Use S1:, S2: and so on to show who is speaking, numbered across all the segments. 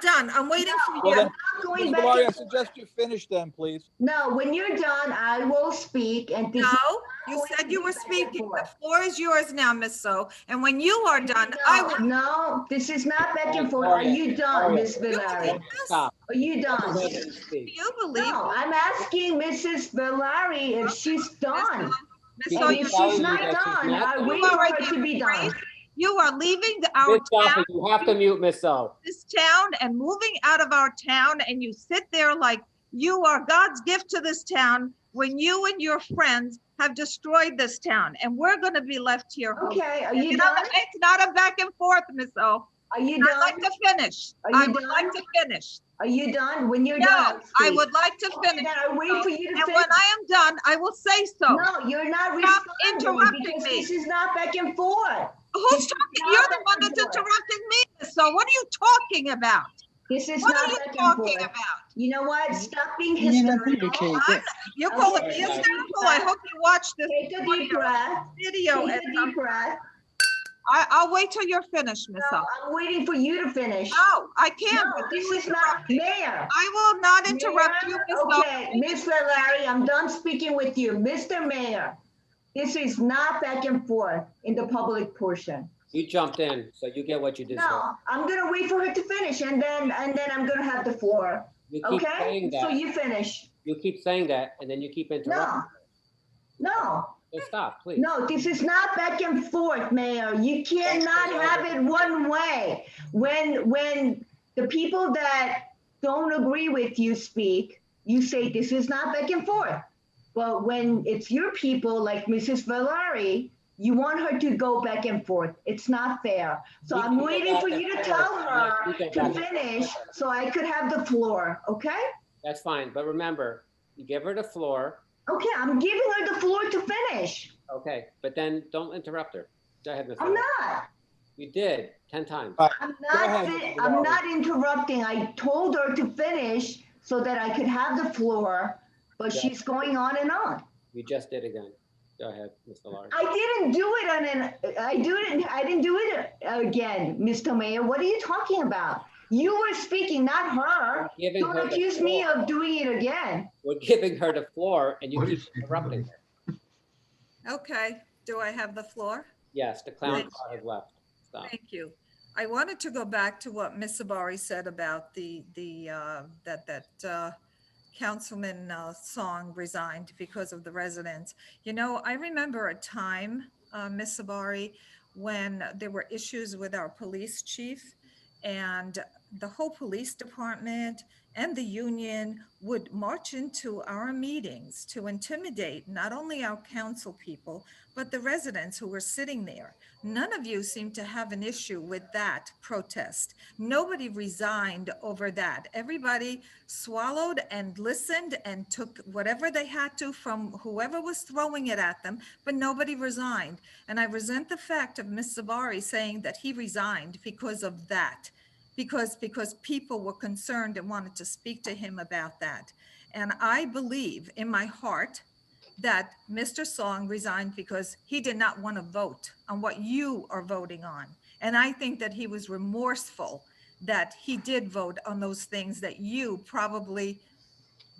S1: done. I'm waiting for
S2: Well,
S1: you.
S2: then,
S3: I'm going
S2: Ms.
S3: back
S2: Mallory, I
S3: and-
S2: suggest you finish then, please.
S3: No, when you're done, I will speak and. to-
S1: No, you said you were speaking. The floor is yours now, Miss So. And when you are done, I will.
S3: No, this is not back and forth. Are you done, Ms. Valari?
S2: Stop.
S3: Are you done?
S2: Let them speak.
S1: Do you believe?
S3: No, I'm asking Mrs. Valari if she's done.
S1: Miss So,
S3: And if
S1: you-
S3: she's not done, I wait for her to be done.
S1: you are leaving the- our
S4: Miss
S1: town,
S4: Sophie, you have to mute Miss O.
S1: this town and moving out of our town and you sit there like you are God's gift to this town when you and your friends have destroyed this town and we're going to be left here. hopeless.
S3: Okay, are you
S1: It's not
S3: done?
S1: a- it's not a back and forth, Miss O.
S3: Are you
S1: I'd like
S3: done?
S1: to finish.
S3: Are you
S1: I would like
S3: done?
S1: to finish.
S3: Are you done? When you're
S1: No,
S3: done.
S1: I
S3: speak.
S1: would like to
S3: Then
S1: finish.
S3: I wait for you to
S1: And
S3: finish.
S1: when I am done, I will say so.
S3: No, you're not
S1: Stop
S3: responding
S1: interrupting
S3: because
S1: me.
S3: this is not back and forth.
S1: Who's talking? You're the one that's
S3: No, no, no.
S1: interrupting me. Miss So what are you talking about?
S3: This is
S1: What
S3: not
S1: are you
S3: back and
S1: talking
S3: forth.
S1: about?
S3: You know what? Stop being
S5: Mm-hmm. You never
S3: hysterical.
S5: communicate.
S1: I'm- You're calling me
S3: Okay.
S1: hysterical. I hope you watch this
S3: Take a deep breath.
S1: video.
S3: Take
S1: and um,
S3: a deep breath.
S1: I, I'll wait till you're finished, Miss
S3: No,
S1: Huff.
S3: I'm waiting for you to finish.
S1: No, I
S3: No,
S1: can't. with
S3: this
S1: you
S3: is not,
S1: interrupting.
S3: Mayor.
S1: I will not interrupt you,
S3: Mayor,
S1: Miss Huff.
S3: Okay, Ms. Larry, I'm done speaking with you. Mr. Mayor, this is not back and forth in the public portion.
S4: You jumped in, so you get what you deserve.
S3: No, I'm gonna wait for her to finish and then, and then I'm gonna have the floor,
S4: You keep
S3: okay?
S4: saying
S3: So
S4: that,
S3: you finish.
S4: you keep saying that, and then you keep
S3: No,
S4: interrupting.
S3: no,
S4: So stop, please.
S3: no, this is not back and forth, Mayor. You cannot have it one way. When, when the people that don't agree with you speak, you say this is not back and forth. But when it's your people, like Mrs. Valari, you want her to go back and forth. It's not fair. So
S4: We
S3: I'm
S4: can go
S3: waiting for
S4: back
S3: you to
S4: and
S3: tell
S4: forth.
S3: her
S4: We can
S3: to
S4: back and
S3: finish
S4: forth.
S3: so I could have the floor, okay?
S4: That's fine, but remember, you give her the floor,
S3: Okay, I'm giving her the floor to finish.
S4: okay, but then don't interrupt her. Go ahead, Ms.
S3: I'm
S4: O.
S3: not.
S4: You did, 10 times.
S3: I'm
S2: Go
S3: not,
S2: ahead,
S3: fin-
S2: Mr.
S3: I'm
S2: Valli.
S3: not interrupting. I told her to finish so that I could have the floor, but
S4: Yeah.
S3: she's going on and on.
S4: You just did again. Go ahead, Mr. Lawrence.
S3: I didn't do it on an, I didn't, I didn't do it again, Mr. Mayor. What are you talking about? You were speaking, not her.
S4: Giving her
S3: Don't
S4: the
S3: accuse me
S4: floor.
S3: of doing it again.
S4: We're giving her the floor, and you keep interrupting her.
S1: Okay, do I have the floor?
S4: Yes, the clown
S1: Thank
S4: car has left. Stop.
S1: Thank you. I wanted to go back to what Ms. Sabari said about the, the, uh, that, that uh, Councilman uh, Song resigned because of the residents. You know, I remember a time, uh, Ms. Sabari, when there were issues with our police chief and the whole police department and the union would march into our meetings to intimidate not only our council people, but the residents who were sitting there. None of you seem to have an issue with that protest. Nobody resigned over that. Everybody swallowed and listened and took whatever they had to from whoever was throwing it at them, but nobody resigned. And I resent the fact of Ms. Sabari saying that he resigned because of that, because, because people were concerned and wanted to speak to him about that. And I believe in my heart that Mr. Song resigned because he did not want to vote on what you are voting on. And I think that he was remorseful that he did vote on those things that you probably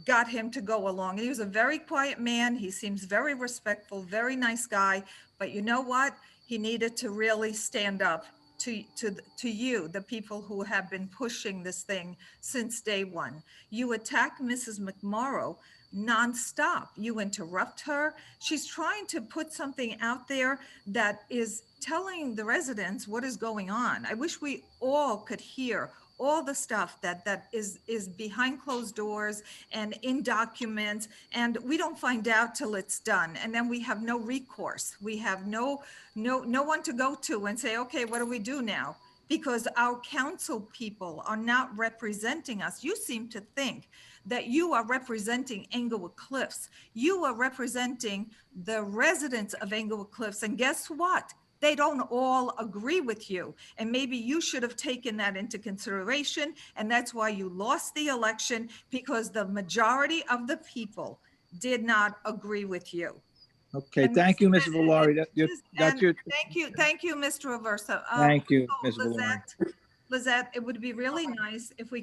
S1: got him to go along. He was a very quiet man. He seems very respectful, very nice guy. But you know what? He needed to really stand up to, to, th- to you, the people who have been pushing this thing since day one. You attack Mrs. McMorrow nonstop. You interrupt her. She's trying to put something out there that is telling the residents what is going on. I wish we all could hear all the stuff that that is is behind closed doors and in documents and we don't find out till it's done and then we have no recourse we have no no no one to go to and say okay what do we do now because our council people are not representing us you seem to think that you are representing Englewood Cliffs. You are representing the residents of Englewood Cliffs. And guess what? They don't all agree with you. And maybe you should have taken that into consideration. And that's why you lost the election because the majority of the people did not agree with you.
S5: Okay, thank you, Mrs. Valari. That-
S1: This-
S5: That's your,
S1: Thank you, thank you, Mr. Aversa. Uh,
S5: thank you,
S1: oh,
S5: Ms. Valari.
S1: Lizette, Lizette, it would be really nice if we